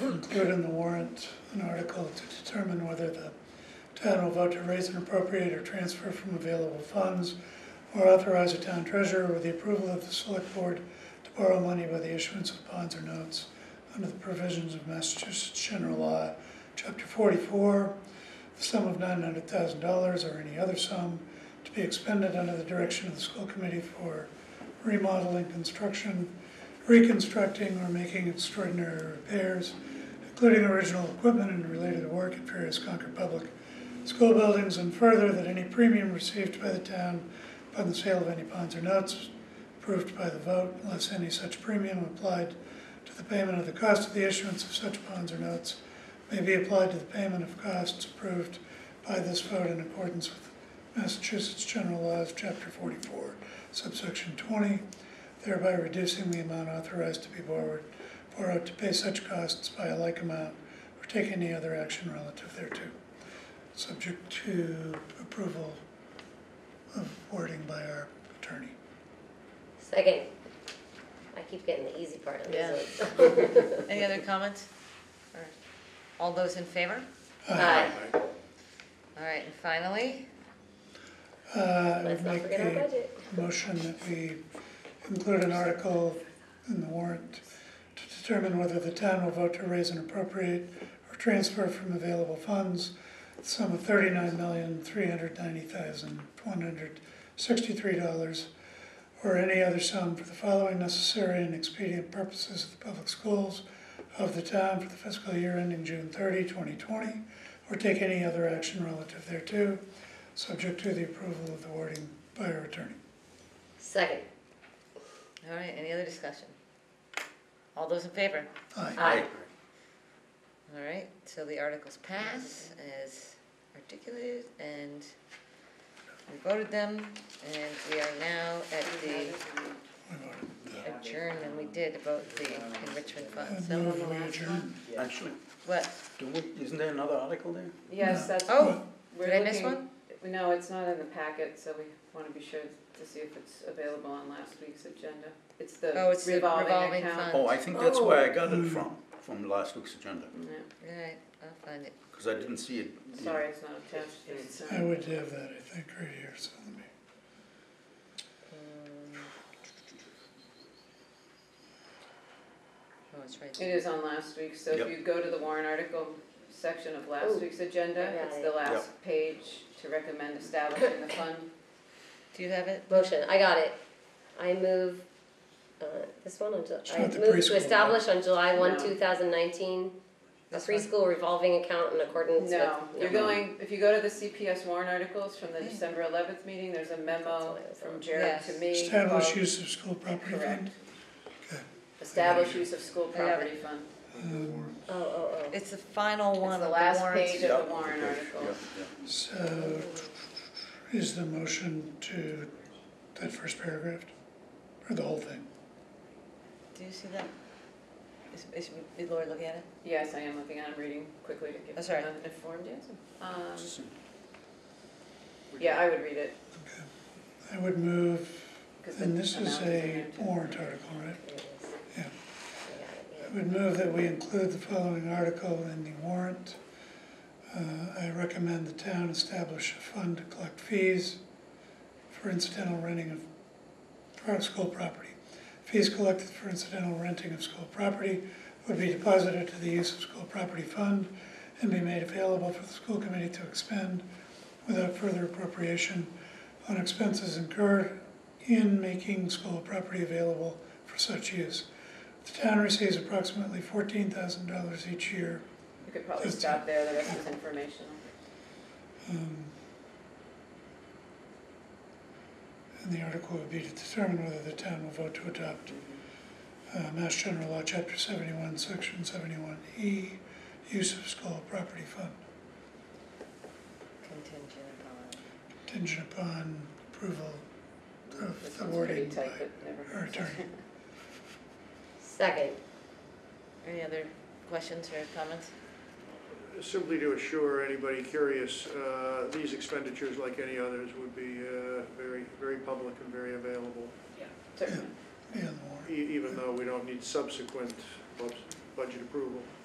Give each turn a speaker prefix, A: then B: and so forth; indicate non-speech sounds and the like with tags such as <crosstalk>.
A: put in the warrant an article to determine whether the town will vote to raise and appropriate or transfer from available funds or authorize the town treasurer with the approval of the select board to borrow money by the issuance of bonds or notes under the provisions of Massachusetts General Law, Chapter forty-four, the sum of nine hundred thousand dollars or any other sum to be expended under the direction of the school committee for remodeling, construction, reconstructing, or making extraordinary repairs, including original equipment and related work at various Concord Public School buildings, and further, that any premium received by the town upon the sale of any bonds or notes approved by the vote, unless any such premium applied to the payment of the cost of the issuance of such bonds or notes, may be applied to the payment of costs approved by this vote in accordance with Massachusetts General Laws, Chapter 44, subsection 20, thereby reducing the amount authorized to be borrowed, borrowed to pay such costs by a like amount, or take any other action relative thereto, subject to approval of wording by our attorney.
B: Second. I keep getting the easy part of
C: Yeah.
B: this.
C: Any other comments? Or All those in favor?
B: Aye.
D: <laughs>
C: All right, and finally,
A: Uh, I
B: Let's
A: would
B: not
A: make
B: forget our
A: a
B: budget.
A: motion that we include an article in the warrant to determine whether the town will vote to raise and appropriate or transfer from available funds the sum of thirty-nine million, three hundred ninety thousand, one hundred sixty-three dollars or any other sum for the following necessary and expedient purposes of the public schools of the town for the fiscal year ending June 30, 2020, or take any other action relative thereto, subject to the approval of the wording by our attorney.
B: Second.
C: all right, any other discussion? All those in favor?
A: Aye.
B: Aye.
C: All right, so the articles pass as articulated and we voted them and we are now at the
A: We voted.
C: adjourn and we did about the enrichment fund,
A: And
C: so
A: move we adjourn.
E: Actually,
C: what?
E: do we, isn't there another article there?
D: Yes, that's.
C: Oh,
D: we're
C: did I miss
D: looking-
C: one?
D: No, it's not in the packet, so we wanna be sure to see if it's available on last week's agenda. It's the
C: Oh, it's the revolving
D: revolving
C: fund.
D: account.
E: Oh, I think that's
D: Oh.
E: where I got it from, from last week's agenda,
D: Yeah,
C: All right, I'll find it.
E: because I didn't see it. you know.
D: Sorry, it's um, not attached to the
A: I
D: agenda.
A: would have that, I think, right here, so let me,
C: Oh, it's right
D: It
C: there.
D: is on last week's, so if
E: Yep.
D: you go to the warrant article section of last
B: Ooh,
D: week's agenda,
B: I got
D: it's
B: it.
D: the last page to recommend establishing
C: <laughs>
D: the fund.
C: Do you have it?
B: Motion, I got it. I move, uh, this one on, Ju-
A: It's
B: I
A: not the
B: move
A: preschool
B: to
A: one.
B: establish on July one,
D: No.
B: two thousand nineteen, a
C: This one?
B: preschool revolving account in accordance with.
D: No, you're
E: no.
D: going, if you go to the CPS warrant articles from the
C: Yeah.
D: December eleventh meeting, there's a memo
B: what I was on.
D: from Jared to
C: Yes.
D: me.
A: establish
D: about-
A: use of school property fund.
D: Correct. Establish use of school
C: I have
D: property fund.
A: Um,
B: Oh, oh, oh.
C: It's the final one
D: It's
C: of
D: the
C: the
D: last
C: warrants.
D: page of
E: Yeah,
D: the warrant
E: okay,
D: article.
E: yeah, yeah.
A: So, is the motion to that first paragraph, or the whole thing?
C: Do you see that? Is, is is Lori looking at it?
D: Yes, I am looking at, I'm reading quickly to give
C: That's all right.
D: an informed answer. Um, yeah, I would read it,
A: I would move,
D: because the
A: and
D: amount
A: this
D: is
A: is
D: in
A: a
D: there too.
A: warrant article, right?
B: There it is.
A: Yeah.
B: I got it, yeah.
A: I would move that we include the following article in the warrant. Uh, I recommend the town establish a fund to collect fees for incidental renting of, for our school property. Fees collected for incidental renting of school property would be deposited to the use of school property fund and be made available for the school committee to expend without further appropriation on expenses incurred in making school property available for such use. The town receives approximately fourteen thousand dollars each year.
D: You could probably
A: Just-
D: stop there, the
A: <laughs>
D: rest is informational.
A: um, And the article would be to determine whether the town will vote to adopt uh, Mass General Law, Chapter seventy-one, Section seventy-one E, use of school property fund
C: Contingent upon.
A: contingent upon approval of
D: This
A: the
D: one's pretty
A: wording by
D: tight, but never
A: our
D: hurts. <laughs>
A: attorney.
B: Second,
C: Any other questions or comments?
F: Simply to assure anybody curious, uh, these expenditures, like any others, would be uh, very, very public and very available,
D: Certainly.
A: Yeah, the warrant.
F: e- even though we don't need subsequent bu- budget approval.